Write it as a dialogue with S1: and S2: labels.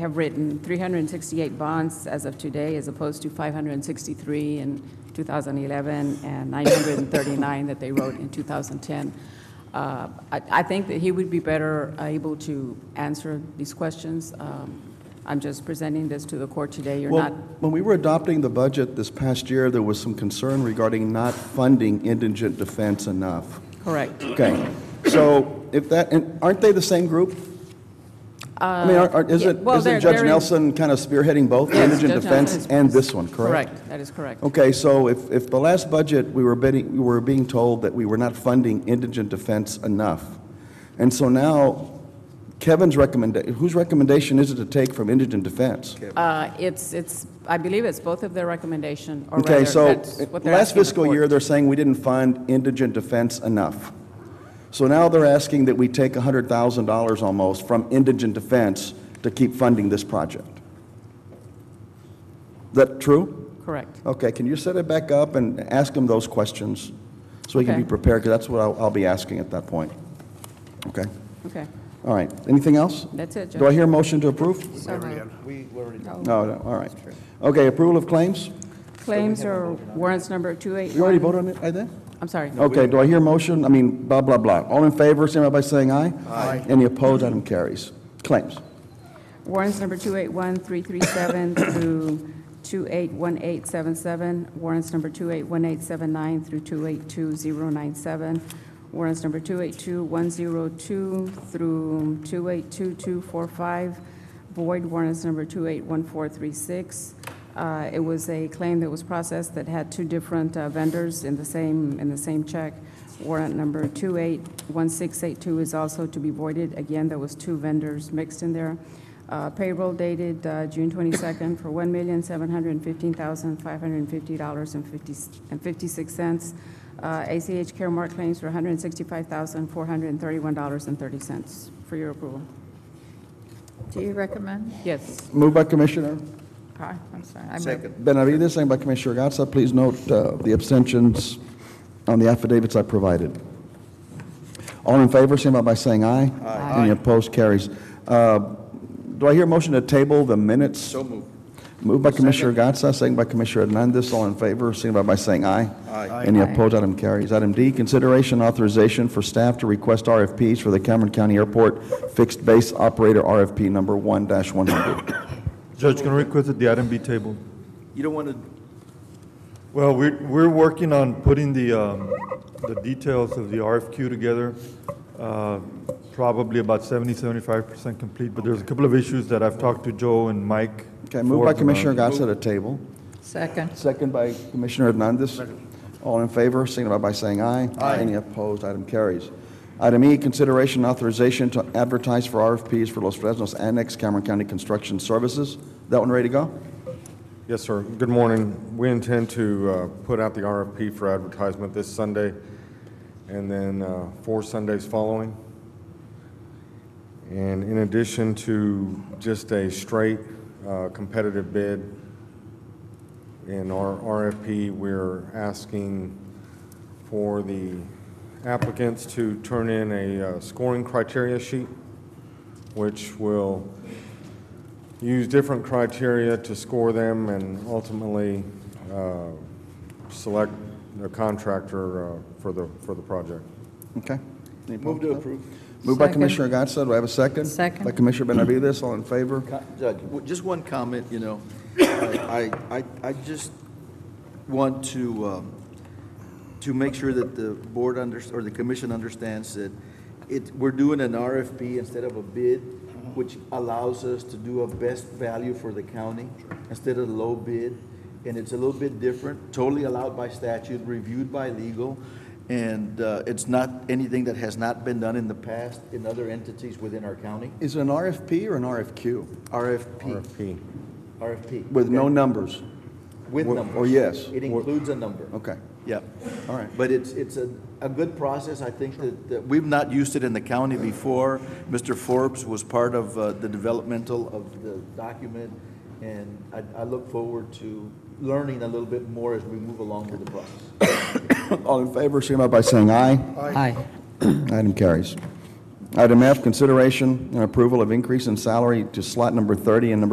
S1: have written 368 bonds as of today, as opposed to 563 in 2011 and 939 that they wrote in 2010. Uh, I I think that he would be better able to answer these questions. Um, I'm just presenting this to the court today. You're
S2: Well,
S1: not,
S2: When we were adopting the budget this past year, there was some concern regarding not funding indigent defense enough.
S1: correct.
S2: Okay, so if that, and aren't they the same group? I mean, aren't- aren't-
S1: Uh, yeah,
S2: isn't
S1: well, they're-
S2: isn't Judge
S1: they're in-
S2: Nelson kind of spearheading both
S1: Yes,
S2: indigent
S1: Judge Nelson
S2: defense
S1: is-
S2: and this one, correct?
S1: Correct, that is correct.
S2: Okay, so if, if the last budget, we were bidding, we were being told that we were not funding indigent defense enough. And so now Kevin's recommendation, whose recommendation is it to take from indigent defense?
S1: Uh, It's, it's, I believe it's both of their recommendation, or rather,
S2: Okay,
S1: that's
S2: so,
S1: what they're
S2: last
S1: asking the
S2: fiscal
S1: court.
S2: year, they're saying we didn't fund indigent defense enough. So now they're asking that we take $100,000 almost from indigent defense to keep funding this project. Is that true?
S1: Correct.
S2: Okay, can you set it back up and ask them those questions? So we can be
S1: Okay.
S2: prepared, because that's what I'll, I'll be asking at that point. Okay,
S1: Okay,
S2: all right. Anything else?
S1: that's it, Judge.
S2: Do I hear a motion to approve?
S1: So moved.
S2: No, no, all right. Okay, approval of claims?
S1: Claims or warrants number
S2: You already
S1: 281?
S2: voted on it, I think?
S1: I'm sorry.
S2: Okay, do I hear a motion? I mean, blah, blah, blah. All in favor, signify by saying aye. Aye. Any opposed, item carries. Claims.
S1: Warrants number 281337 through 281877, warrants number 281879 through 282097, warrants number 282102 through 282245, void warrants number 281436. Uh, It was a claim that was processed that had two different uh, vendors in the same, in the same check. Warrant number 281682 is also to be voided. Again, there was two vendors mixed in there. Uh, Payroll dated uh, June 22nd for $1,715,550.56. Uh, ACH Caremark claims for $165,431.30 for your approval.
S3: Do you recommend?
S1: Yes.
S2: Moved by Commissioner
S3: Hi, I'm sorry. I moved.
S2: Benavides, second by Commissioner Gatsa. Please note uh, the abstentions on the affidavits I provided. All in favor, signify by saying aye. Aye. Any opposed, carries. Uh, Do I hear a motion to table the minutes? So moved. Moved by Commissioner Gatsa, second by Commissioner Hernandez. All in favor, signify by saying aye. Aye. Any opposed, item carries. Item D, consideration authorization for staff to request RFPs for the Cameron County Airport Fixed Base Operator RFP number 1-100.
S4: Judge, can I request that the item be tabled?
S5: You don't want to,
S4: Well, we're, we're working on putting the, um, the details of the RFQ together, uh, probably about 70, 75% complete, but there's a couple of issues that I've talked to Joe and Mike.
S2: Okay, moved by
S4: Forbes about.
S2: Commissioner Gatsa to table.
S3: Second.
S2: Second by Commissioner Hernandez. All in favor, signify by saying aye. Aye. Any opposed, item carries. Item E, consideration authorization to advertise for RFPs for Los Fresnos Annex Cameron County Construction Services. That one ready to go?
S6: Yes, sir. Good morning. We intend to uh, put out the RFP for advertisement this Sunday and then uh, four Sundays following. And in addition to just a straight uh, competitive bid in our RFP, we're asking for the applicants to turn in a uh, scoring criteria sheet, which will use different criteria to score them and ultimately uh, select the contractor uh, for the, for the project.
S2: Okay. Any
S5: move
S2: opposed?
S5: to approve.
S2: Moved by
S3: Second.
S2: Commissioner Gatsa, do I have a second?
S3: Second.
S2: By Commissioner Benavides, all in favor?
S5: Co- Judge, w- just one comment, you know. I, I, I just want to, um, to make sure that the board under, or the commission understands that it, we're doing an RFP instead of a bid,
S2: Mm-hmm.
S5: which allows us to do a best value for the county instead of low bid. And it's a little bit different, totally allowed by statute, reviewed by legal. And uh, it's not anything that has not been done in the past in other entities within our county.
S2: Is it an RFP or an RFQ?
S5: RFP.
S6: RFP.
S5: RFP.
S2: With no
S5: okay?
S2: numbers?
S5: With
S2: or-
S5: numbers.
S2: or yes.
S5: It includes a number.
S2: Okay,
S5: Yep.
S2: all right.
S5: But it's, it's a, a good process. I think that, that we've not used it in the county before. Mr. Forbes was part of uh, the developmental of the document, and I, I look forward to learning a little bit more as we move along with the process.
S2: All in favor, signify by saying aye.
S3: Aye.
S2: Item carries. Item F, consideration and approval of increase in salary to slot number 30 and number